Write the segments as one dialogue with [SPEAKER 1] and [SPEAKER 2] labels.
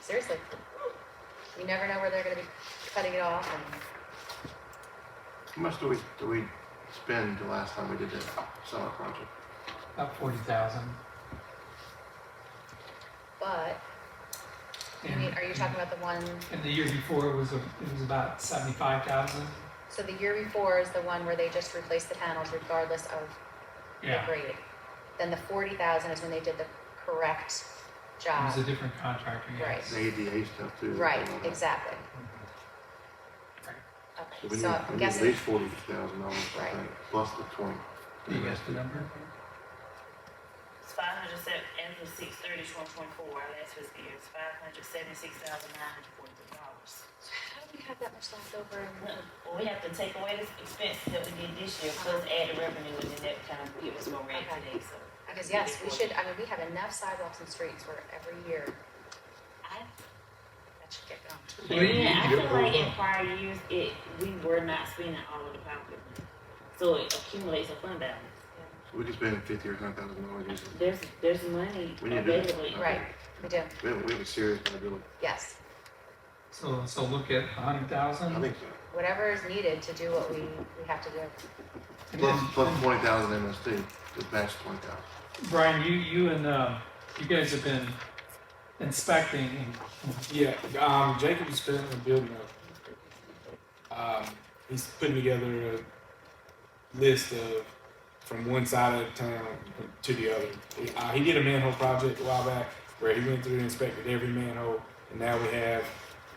[SPEAKER 1] Seriously. You never know where they're gonna be cutting it off and.
[SPEAKER 2] How much do we, do we spend the last time we did that summer project?
[SPEAKER 3] About forty thousand.
[SPEAKER 1] But, I mean, are you talking about the one,
[SPEAKER 3] And the year before it was, a- it was about seventy-five thousand.
[SPEAKER 1] so the year before is the one where they just replaced the panels regardless of the
[SPEAKER 3] Yeah,
[SPEAKER 1] grade? Then the forty thousand is when they did the correct
[SPEAKER 3] it was a
[SPEAKER 1] job,
[SPEAKER 3] different contractor, yes.
[SPEAKER 2] The ADA stuff too.
[SPEAKER 1] right,
[SPEAKER 2] and all that.
[SPEAKER 1] exactly.
[SPEAKER 2] So
[SPEAKER 1] Okay,
[SPEAKER 2] we need,
[SPEAKER 1] so
[SPEAKER 2] we
[SPEAKER 1] I'm
[SPEAKER 2] need at least
[SPEAKER 1] guessing,
[SPEAKER 2] forty thousand dollars, I
[SPEAKER 1] Right.
[SPEAKER 2] think, plus the twenty.
[SPEAKER 3] Do you guess the number?
[SPEAKER 4] It's five hundred seven, as of six thirty, twenty twenty-four, our last fiscal year, it's five hundred seventy-six thousand nine hundred forty-three dollars.
[SPEAKER 1] so how do we have that much left over in
[SPEAKER 4] Well, we have to take away the expenses that we did this year, plus add the revenue, and then that kind of gives us more rent today, so.
[SPEAKER 1] Because yes, we should, I mean, we have enough sidewalks and streets where every year
[SPEAKER 4] I-
[SPEAKER 1] that should get going.
[SPEAKER 3] Well, you need
[SPEAKER 4] Yeah, I
[SPEAKER 3] to
[SPEAKER 4] feel
[SPEAKER 3] get
[SPEAKER 4] like
[SPEAKER 3] over-
[SPEAKER 4] in prior years, it, we were not spending all of the popular money, so it accumulates a fund balance.
[SPEAKER 2] So we could spend fifty or hundred thousand dollars using.
[SPEAKER 4] There's, there's money
[SPEAKER 2] We need to do that.
[SPEAKER 4] available.
[SPEAKER 1] Right, we do,
[SPEAKER 2] We have, we have a serious liability.
[SPEAKER 1] yes.
[SPEAKER 3] So, so look at a hundred
[SPEAKER 2] I
[SPEAKER 3] thousand.
[SPEAKER 2] think so.
[SPEAKER 1] Whatever is needed to do what we, we have to do.
[SPEAKER 2] Plus, plus twenty thousand MSD, the match twenty thousand.
[SPEAKER 3] Brian, you, you and, um, you guys have been inspecting and
[SPEAKER 5] Yeah, um, Jacob's been building up. Um, he's putting together a list of from one side of town to the other. Uh, he did a manhole project a while back where he went through and inspected every manhole, and now we have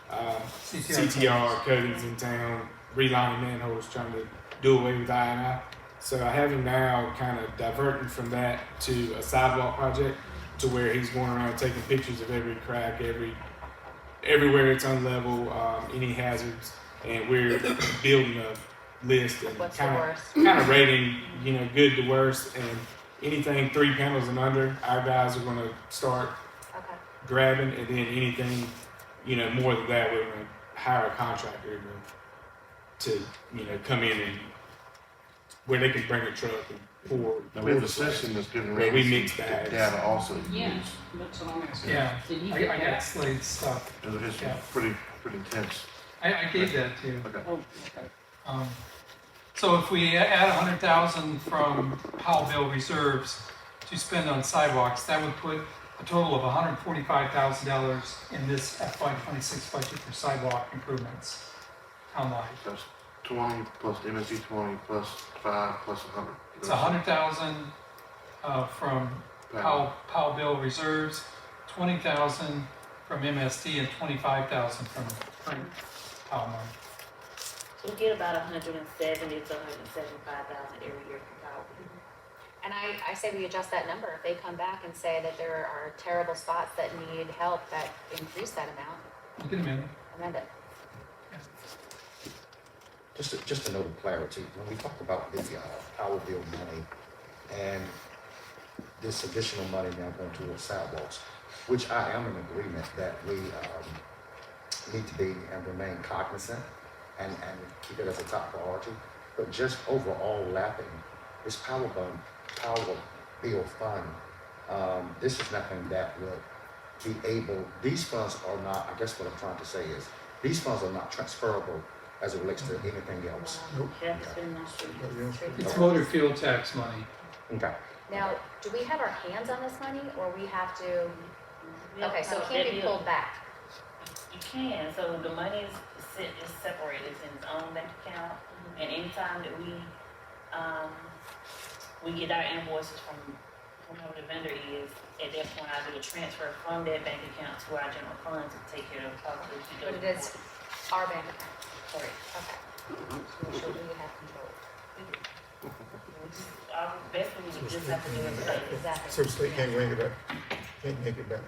[SPEAKER 5] um, CTR cuttings in town, relining manholes, trying to do away with I and I. So I have him now kind of diverting from that to a sidewalk project to where he's going around taking pictures of every crack, every everywhere it's unlevel, um, any hazards, and we're building a list and
[SPEAKER 1] What's the
[SPEAKER 5] kind of
[SPEAKER 1] worst?
[SPEAKER 5] kind of rating, you know, good to worst, and anything three panels and under, our guys are going to start
[SPEAKER 1] Okay,
[SPEAKER 5] grabbing, and then anything, you know, more than that, we're going to hire a contractor to, to, you know, come in and where they can bring a truck and pour.
[SPEAKER 2] Now, we have a system that's giving.
[SPEAKER 5] Where we
[SPEAKER 2] rates
[SPEAKER 5] mix
[SPEAKER 2] and
[SPEAKER 5] bags.
[SPEAKER 2] Data also. to
[SPEAKER 6] Yeah,
[SPEAKER 2] use.
[SPEAKER 6] that's what I'm asking.
[SPEAKER 3] Yeah,
[SPEAKER 6] Did he
[SPEAKER 3] I,
[SPEAKER 6] get
[SPEAKER 3] I got
[SPEAKER 6] that?
[SPEAKER 3] Slade's stuff.
[SPEAKER 2] It was
[SPEAKER 3] Yeah.
[SPEAKER 2] pretty, pretty intense.
[SPEAKER 3] I, I gave that to.
[SPEAKER 2] Okay.
[SPEAKER 6] Oh, okay.
[SPEAKER 3] Um, So if we add a hundred thousand from Powellville reserves to spend on sidewalks, that would put a total of hundred and forty-five thousand dollars in this FY twenty-six budget for sidewalk improvements townwide.
[SPEAKER 2] That's twenty plus the MSD twenty plus five plus a hundred.
[SPEAKER 3] It's a hundred thousand, uh, from Powell, Powellville reserves, twenty thousand from MSD and twenty-five thousand from from Powell money.
[SPEAKER 4] We get about a hundred and seventy to hundred and seventy-five thousand every year from Powell.
[SPEAKER 1] and I, I say we adjust that number, if they come back and say that there are terrible spots that need help, that increase that amount,
[SPEAKER 3] Look at a minute.
[SPEAKER 1] amend it.
[SPEAKER 7] Just, a- just a note of clarity, when we talk about the uh, power bill money and this additional money now going towards sidewalks, which I am in agreement that we um, need to be and remain cognizant and, and keep it as a top priority, but just overall lapping this power bill, power bill fund, um, this is nothing that would be able, these funds are not, I guess what I'm trying to say is, these funds are not transferable as it relates to anything else.
[SPEAKER 4] Have to spend less than-
[SPEAKER 3] It's motor fuel tax money.
[SPEAKER 7] Okay.
[SPEAKER 1] Now, do we have our hands on this money, or we have to,
[SPEAKER 4] Yep,
[SPEAKER 1] okay, so it
[SPEAKER 4] that
[SPEAKER 1] can't be
[SPEAKER 4] is.
[SPEAKER 1] pulled back?
[SPEAKER 4] You can, so the money is set, is separated, it's in its own bank account,
[SPEAKER 1] Mm-hmm.
[SPEAKER 4] and anytime that we, um, we get our invoices from whoever the vendor is, at that point, I do a transfer from that bank account to our general fund to take care of the cost of the.
[SPEAKER 1] But it is our bank account,
[SPEAKER 4] Sorry.
[SPEAKER 1] okay. So make sure we have control.
[SPEAKER 4] We just- Our best we would just have to do it, like,
[SPEAKER 1] Exactly.
[SPEAKER 8] So the state can't make it up, can't make it better.